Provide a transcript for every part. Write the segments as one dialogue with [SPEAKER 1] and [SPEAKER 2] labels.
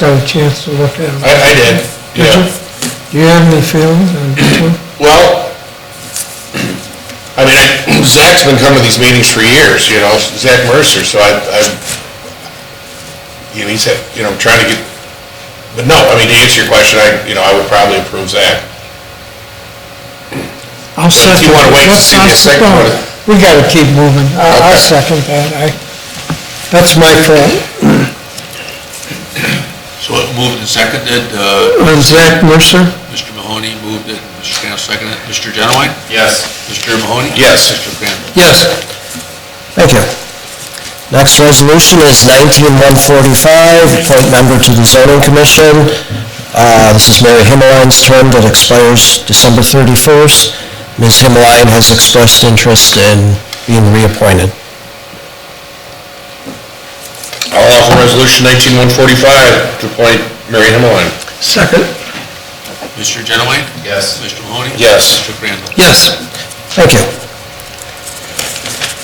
[SPEAKER 1] got a chance to look at them.
[SPEAKER 2] I, I did,
[SPEAKER 1] Did you?
[SPEAKER 2] Oh, yeah.
[SPEAKER 1] Do you have any feelings on this one?
[SPEAKER 2] Well, I mean, I- Zach's been coming to these meetings for years, you know, Zach Mercer, so I, I, you know, he's had, you know, trying to get, but no, I mean, to answer your question, I, you know, I would probably approve Zach.
[SPEAKER 1] I'll second.
[SPEAKER 2] you wanna wait to
[SPEAKER 1] Let's
[SPEAKER 2] see the
[SPEAKER 1] not-
[SPEAKER 2] second
[SPEAKER 1] no,
[SPEAKER 2] one.
[SPEAKER 1] We gotta keep moving. I- I'll
[SPEAKER 2] Okay.
[SPEAKER 1] second that. I, that's my fault.
[SPEAKER 3] So it moved and seconded, uh,
[SPEAKER 1] On Zach Mercer?
[SPEAKER 3] Mr. Mahoney moved it, Mr. Cantile seconded, it. Mr. Genowine,
[SPEAKER 2] Yes.
[SPEAKER 3] Mr. Mahoney?
[SPEAKER 2] Yes.
[SPEAKER 3] Mr. Crandall?
[SPEAKER 1] Yes.
[SPEAKER 4] Thank you. Next resolution is 19145, appoint member to the zoning commission. Uh, This is Mary Himmelein's term that expires December 31st. Ms. Himmeline has expressed interest in being reappointed.
[SPEAKER 2] I'll offer resolution nineteen one forty-five to appoint Mary Himmeline.
[SPEAKER 1] Second.
[SPEAKER 3] Mr. Genowine?
[SPEAKER 2] Yes.
[SPEAKER 3] Mr. Mahoney?
[SPEAKER 2] Yes.
[SPEAKER 3] Mr. Crandall?
[SPEAKER 1] Yes.
[SPEAKER 4] Thank you.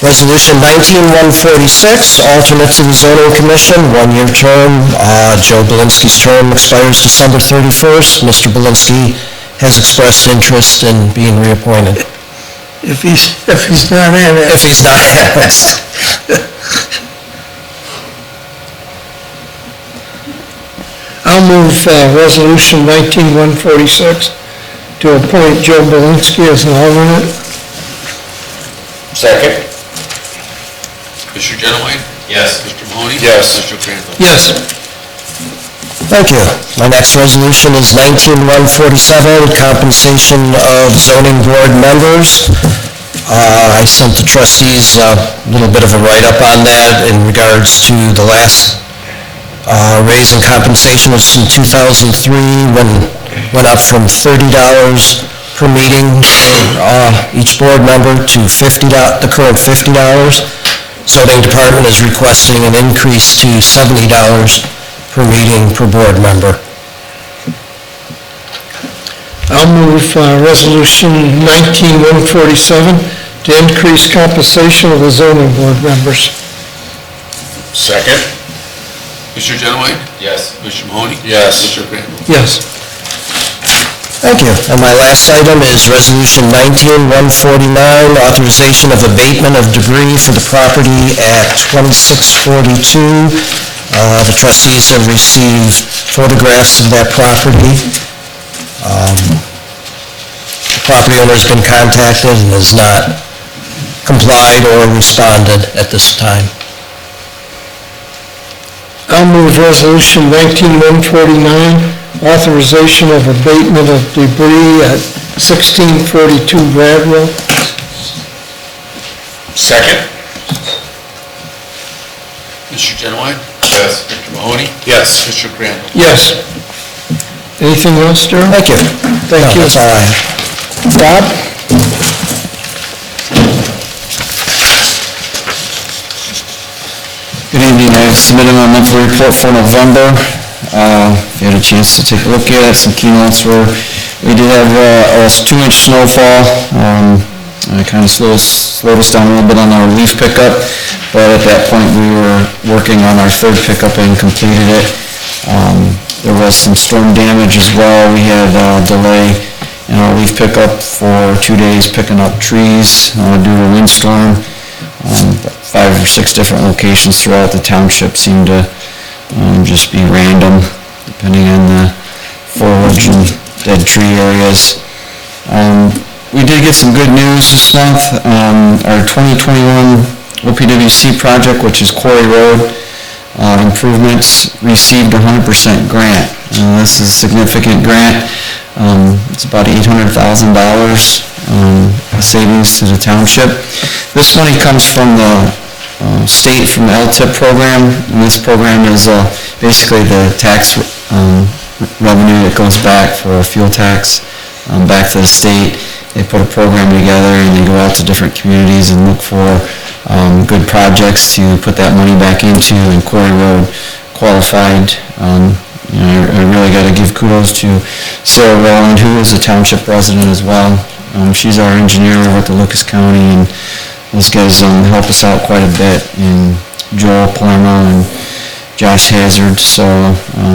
[SPEAKER 4] Resolution 19146, alternate to the zoning commission, one-year term. Uh, Joe Belinsky's term expires December 31st. Mr. Belinsky has expressed interest in being reappointed.
[SPEAKER 1] If he's, if he's not in it.
[SPEAKER 4] If he's not annexed.
[SPEAKER 1] I'll move uh, Resolution 19146 to appoint Joe Belinsky as an alternate.
[SPEAKER 2] Second?
[SPEAKER 3] Mr. Genowine?
[SPEAKER 2] Yes.
[SPEAKER 3] Mr. Mahoney?
[SPEAKER 2] Yes.
[SPEAKER 3] Mr. Crandall?
[SPEAKER 1] Yes.
[SPEAKER 4] Thank you. My next resolution is 19147, compensation of zoning board members. Uh, I sent the trustees a little bit of a write-up on that in regards to the last uh, raise in compensation was in 2003, when, went up from $30 per meeting for uh, each board member to $50, the current $50. Zoning Department is requesting an increase to $70 per meeting per board member.
[SPEAKER 1] I'll move uh, Resolution 19147 to increase compensation of the zoning board members.
[SPEAKER 2] Second?
[SPEAKER 3] Mr. Genowine?
[SPEAKER 2] Yes.
[SPEAKER 3] Mr. Mahoney?
[SPEAKER 2] Yes.
[SPEAKER 3] Mr. Crandall?
[SPEAKER 1] Yes.
[SPEAKER 4] Thank you. And my last item is Resolution 19149, authorization of abatement of debris for the property at 2642. Uh, The trustees have received photographs of that property. Um, The property owner's been contacted and has not complied or responded at this time.
[SPEAKER 1] I'll move Resolution 19149, authorization of abatement of debris at 1642 Bradwell.
[SPEAKER 2] Second?
[SPEAKER 3] Mr. Genowine?
[SPEAKER 2] Yes.
[SPEAKER 3] Mr. Mahoney?
[SPEAKER 2] Yes.
[SPEAKER 3] Mr. Crandall?
[SPEAKER 1] Yes. Anything else, Darrell?
[SPEAKER 4] Thank you.
[SPEAKER 1] Thank
[SPEAKER 4] No,
[SPEAKER 1] you.
[SPEAKER 4] That's all I have.
[SPEAKER 1] Bob?
[SPEAKER 5] Good evening, I submitted my monthly report for November. Uh, If you had a chance to take a look at it, some key notes were, we did have uh, a two-inch snowfall. Um, and It kind of slowed, slowed us down a little bit on our leaf pickup, but at that point, we were working on our third pickup and completed it. Um, There was some storm damage as well. We had uh, delay in our leaf pickup for two days picking up trees uh, due to windstorm um, five or six different locations throughout the township seem to um, just be random, depending on the foliage and dead tree areas. Um, We did get some good news this month. Um, Our 2021 OPWC project, which is Quarry Road uh, improvements, received 100% grant. Uh, This is a significant grant. Um, It's about $800,000 um, savings to the township. This money comes from the uh, state from the LTIP program, and this program is uh, basically the tax um, revenue that goes back for fuel tax, um, back to the state. They put a program together and they go out to different communities and look for um, good projects to put that money back into, and Quarry Road qualified. um, You know, I I really got to give kudos to Sarah Rowland, who is a township resident as well. Um, She's our engineer over at the Lucas County, and those guys um, help us out quite a bit, and Joel Palermo and Josh Hazard, so um,